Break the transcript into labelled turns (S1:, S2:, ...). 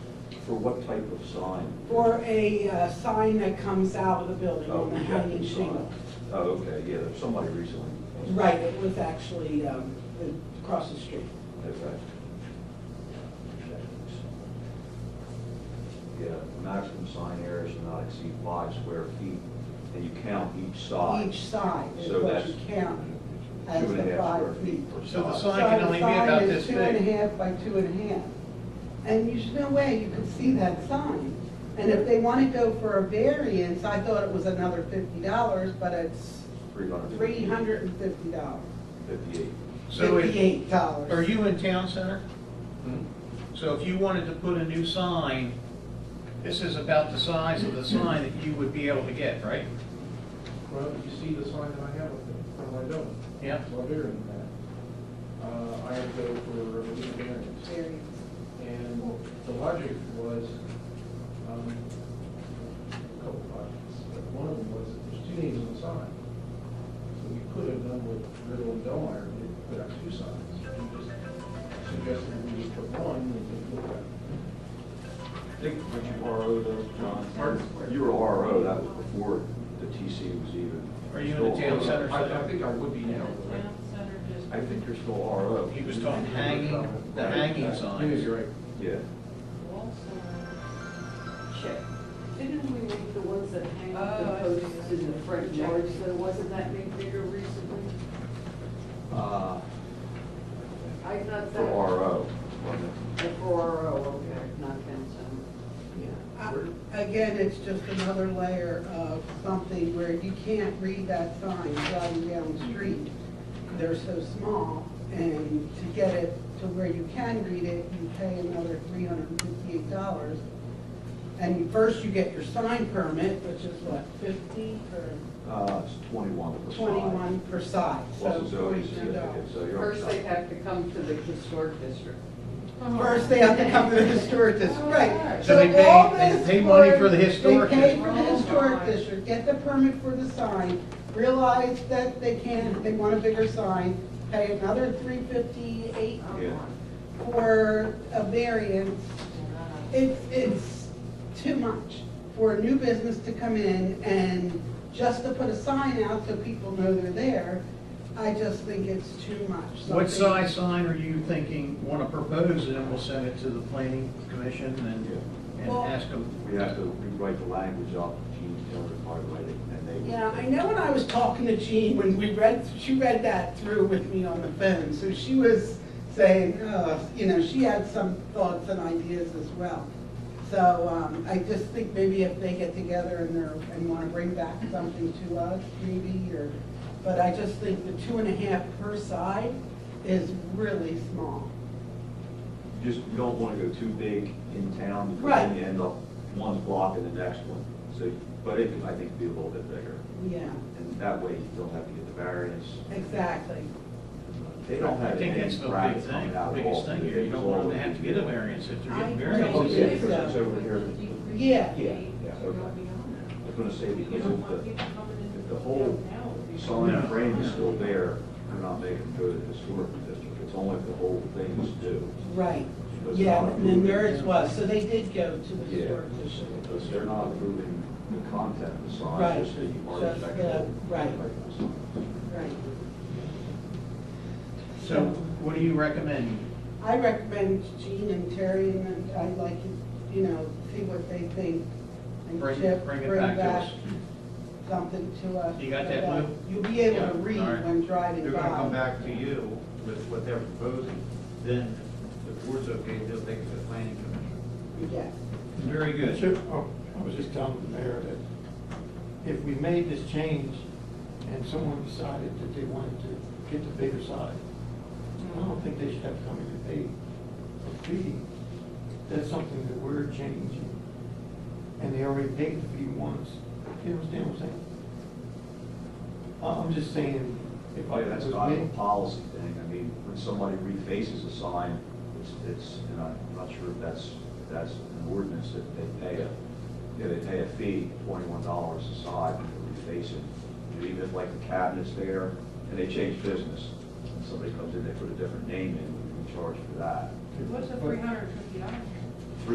S1: for what type of sign?
S2: Or a uh, sign that comes out of the building
S1: Oh,
S2: on the hanging
S1: projecting sign.
S2: shingle.
S1: Oh, okay, yeah, there's somebody recently.
S2: Right, it was actually um, across the street.
S1: Okay. Yeah, maximum sign area should not exceed five square feet, and you count each side.
S2: Each side is
S1: So
S2: what you
S1: that's
S2: count. as
S1: Two and
S2: the
S1: a half square
S2: five
S1: feet
S2: feet.
S1: per
S3: So the
S1: side.
S3: sign can only be about this
S2: So the sign is two and a
S3: big.
S2: half by two and a half. And there's no way you could see that sign. And if they want to go for a variance, I thought it was another fifty dollars, but it's
S1: Three hundred.
S2: three hundred and fifty dollars,
S1: Fifty-eight.
S3: So if,
S2: fifty-eight dollars.
S3: are you in town center? So if you wanted to put a new sign, this is about the size of the sign that you would be able to get, right?
S4: Well, you see the sign that I have up there, from my building,
S3: Yeah?
S4: it's a lot bigger than that. Uh, I had to go for a legal variance,
S2: Variance.
S4: and the logic was, um, a couple logics, but one of them was that there's two names on the sign. So we could have done with Riddle and Delmeyer, we didn't put out two signs, we just suggested we just put one, and then put that.
S1: Think, would you RO those, John? You were RO, that was before the TC was even.
S3: Are you in the town center?
S4: I, I think I would be now, but I-
S5: Town center district.
S1: I think you're still RO.
S3: He was talking hanging, the hanging
S4: I think you're
S3: signs.
S4: right.
S1: Yeah.
S5: Also,
S6: check. Didn't we make the ones that hang up
S5: Oh, I
S6: the
S5: see.
S6: posts in the front yards, though, wasn't that made bigger recently?
S1: Uh,
S6: I not
S1: For
S6: that,
S1: RO. wasn't it?
S6: for RO, okay, not town center.
S2: I- Uh, Again, it's just another layer of something where you can't read that sign driving down the street. They're so small, and to get it to where you can read it, you pay another three hundred and fifty-eight dollars. And first you get your sign permit, which is what, fifty or
S1: Uh, it's twenty-one per side.
S2: twenty-one per side, so
S1: Plus a zoning
S2: forty-two
S1: certificate,
S2: dollars.
S1: so you're.
S6: First, they have to come to the historic district.
S2: First, they have to come to the historic district, right.
S3: So they pay-
S2: all
S3: they
S2: this
S3: pay money
S2: work,
S3: for the historic
S2: They pay
S3: district.
S2: for the historic district, get the permit for the sign, realize that they can't, they want a bigger sign, pay another three fifty-eight
S1: Yeah.
S2: for a variance.
S6: Ah.
S2: It's, it's too much for a new business to come in and just to put a sign out so people know they're there. I just think it's too much.
S3: What
S2: Something-
S3: size sign are you thinking, want to propose, and then we'll send it to the planning commission and, and
S2: Well-
S3: ask
S1: We have to
S3: them?
S1: rewrite the language up, Gene Taylor probably write it, and they.
S2: Yeah, I know when I was talking to Jean, when we read, she read that through with me on the phone, so she was saying, uh, you know, she had some thoughts and ideas as well. So, um, I just think maybe if they get together and they're, and wanna bring back something to us, maybe, or, but I just think the two and a half per side is really small.
S1: Just, you don't wanna go too big in town, because
S2: Right.
S1: then you end up, one's blocking the next one, so, but it, can, I think, be a little bit bigger,
S2: Yeah,
S1: and that way you don't have to get the variance.
S2: exactly.
S1: They don't
S3: I
S1: have
S3: think
S1: any
S3: that's the big
S1: brackets
S3: thing,
S1: coming out at all.
S3: biggest thing here, you don't want them to have to get a variance if they're getting
S2: I-
S3: variances.
S1: Yeah, because it's over here.
S2: Yeah.
S1: Yeah, yeah, okay. I was gonna say, because if the, if the whole
S3: No.
S1: sign frame is still there, they're not making it go to the historic district, it's only if the whole thing is due.
S2: Right,
S1: But it's
S2: yeah,
S1: not
S2: and then
S1: moving.
S2: theirs was, so they did go to the
S1: Yeah,
S2: historic district.
S1: because they're not approving the content of the sign,
S2: Right,
S1: just the
S2: just the-
S1: architectural.
S2: right. Right.
S3: So what do you recommend?
S2: I recommend Gene and Terry, and then I'd like, to, you know, see what they think. and
S3: Bring,
S2: Chip,
S3: bring it back to us.
S2: Something to us.
S3: You got
S2: so
S3: that, Lou?
S2: You'll be able to
S7: Yeah,
S2: read
S7: all right.
S2: when driving by.
S7: They're gonna come back to you with what they're proposing, then if the board's okay, they'll take it to the planning commission.
S2: Yes,
S3: Very good.
S8: Sure, oh, I was just telling the mayor that if we made this change and someone decided that they wanted to get the bigger side, I don't think they should have to come in and pay a fee. That's something that we're changing. And they already paid the fee once. You understand what I'm saying? I- I'm just saying, if I
S1: Oh, Yeah, that's not
S8: was
S1: a
S8: me,
S1: policy thing, I mean, when somebody refaces a sign, it's, it's, and I'm not sure if that's, if that's an ordinance that they pay a, yeah, they pay a fee, twenty-one dollars a side for refacing. And even like the cabinets there, and they change business, and somebody comes in, they put a different name in, we charge for that.
S5: What's the three hundred and fifty dollars?